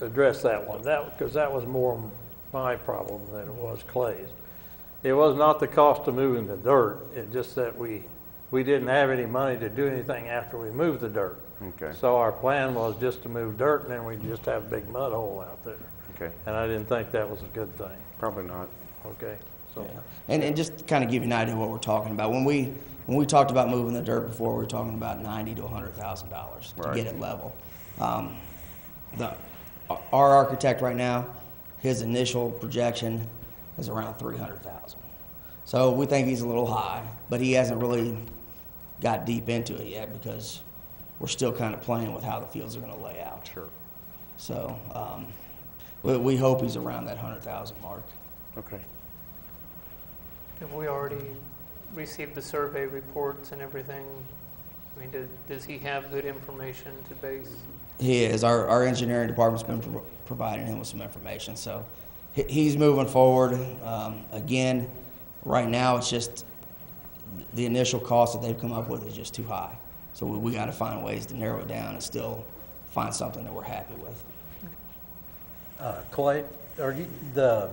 address that one, that, because that was more my problem than it was Clay's. It was not the cost of moving the dirt, it's just that we, we didn't have any money to do anything after we moved the dirt. Okay. So our plan was just to move dirt, and then we'd just have a big mud hole out there. Okay, And I didn't think that was a good thing, probably not. okay? So, And, and just to kind of give you an idea of what we're talking about, when we, when we talked about moving the dirt before, we were talking about ninety to hundred thousand dollars to Right. get it level. Um, the, our architect right now, his initial projection is around three hundred thousand. So we think he's a little high, but he hasn't really got deep into it yet because we're still kind of playing with how the fields are gonna lay out. Sure. So, um, we, we hope he's around that hundred thousand mark. Okay. Have we already received the survey reports and everything? I mean, do- does he have good information to base? He is. Our, our engineering department's been pro- providing him with some information, so he, he's moving forward. Um, again, right now, it's just the initial cost that they've come up with is just too high. So we, we got to find ways to narrow it down and still find something that we're happy with. Uh, Clay, are you, the,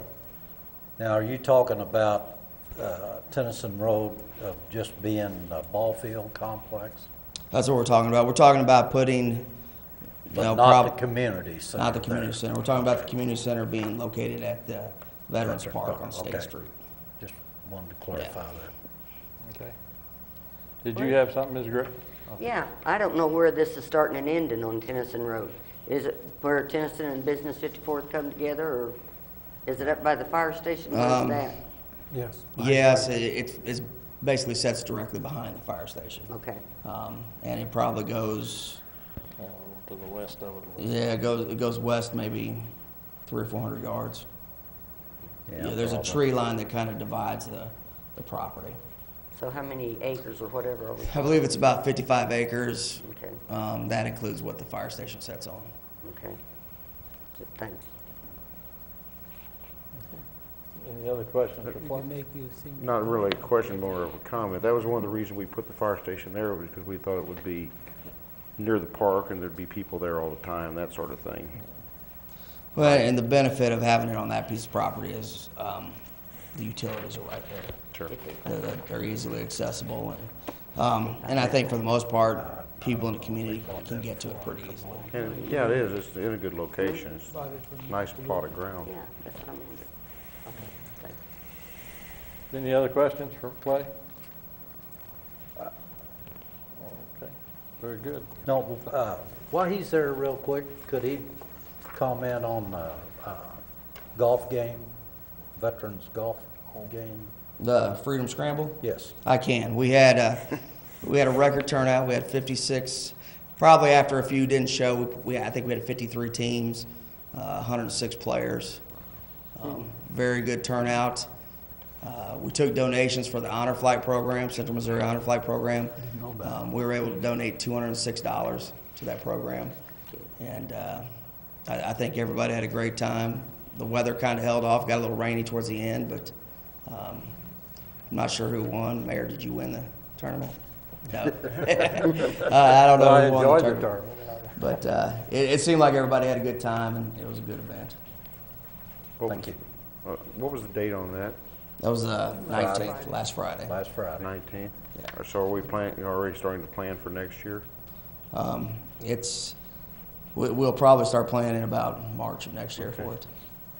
now, are you talking about uh, Tennyson Road of just being a ball field complex? That's what we're talking about. We're talking about putting, you But know, not the prob- community center not the there. community center. We're talking about the community center being located at the Veterans Veterans Park Park, on State okay. Street. Just wanted to clarify that. okay. Did you have something, Ms. Gray? Yeah, I don't know where this is starting and ending on Tennyson Road. Is it where Tennyson and Business 54 come together, or is it up by the fire station? Where's Um, that? Yes. Yes, it, it's- it's basically sets directly behind the fire station. Okay, Um, and it probably goes, Oh, To the west of it. yeah, it goes, it goes west maybe three or four hundred yards. Yeah, there's a probably. tree line that kind of divides the, the property. so how many acres or whatever are we, I believe it's about fifty-five acres. Okay. Um, that includes what the fire station sets on. okay. Thanks. Any other questions or You can comments? make you seem. Not really a question, more of a comment. That was one of the reasons we put the fire station there, was because we thought it would be near the park and there'd be people there all the time, that sort of thing. Well, and the benefit of having it on that piece of property is, um, the utilities are right there. Sure. They're, they're easily accessible and, um, and I think for the most part, people in the community can get to it pretty easily. And, yeah, it is, it's in a good location, it's a nice plot of ground. Yeah, that's what I'm wondering. Okay, thanks. Any other questions for Clay? Uh, Okay, very good. No, uh, while he's there real quick, could he comment on the uh, golf game, Veterans Golf Game? The Freedom Scramble? Yes. I can. We had a, we had a record turnout. We had 56. Probably after a few didn't show, we, we I think we had 53 teams, uh, 106 players. Um, very good turnout. Uh, we took donations for the Honor Flight Program, Central Missouri Honor Flight Program. Um, we were able to donate $206 to that program. And uh, I, I think everybody had a great time. The weather kind of held off, got a little rainy towards the end, but um, I'm not sure who won. Mayor, did you win the tournament? No. uh, I don't know. I who won enjoyed the tournament. But uh, it, it seemed like everybody had a good time, and it was a good event. What Thank you. was- uh, What was the date on that? That was the 19th, Friday. last Friday. Last Friday. Nineteenth? Yeah. So are we planning, already starting to plan for next year? Um, it's we, we'll probably start planning in about March of next year for it.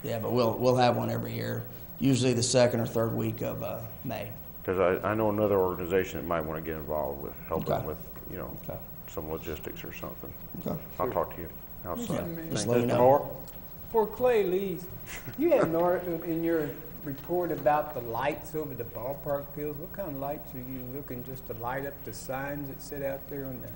Yeah, but we'll we'll have one every year, usually the second or third week of uh, May. Because I, I know another organization that might want to get involved with helping Okay. with, you know, Okay. some logistics or something. Okay. I'll talk to you outside. Just let me know. For Clay Lees, you had an article in your report about the lights over the ballpark fields. What kind of lights are you looking, just to light up the signs that sit out there on the?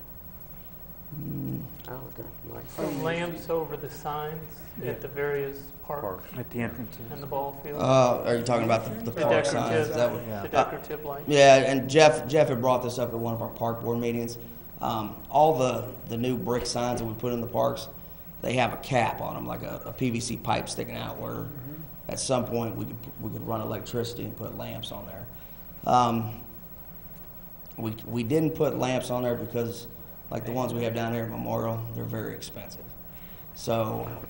Oh, the lights. The lamps over the signs at the various parks At the entrances. and the ball field? Uh, are you talking about the, the The park signs? decorative, That would, the decorative lights? Yeah, and Jeff, Jeff had brought this up at one of our park board meetings. Um, all the, the new brick signs that we put in the parks, they have a cap on them, like a, a PVC pipe sticking out where at some point we could, we could run electricity and put lamps on there. Um, we, we didn't put lamps on there because like the ones we have down here at Memorial, they're very expensive. So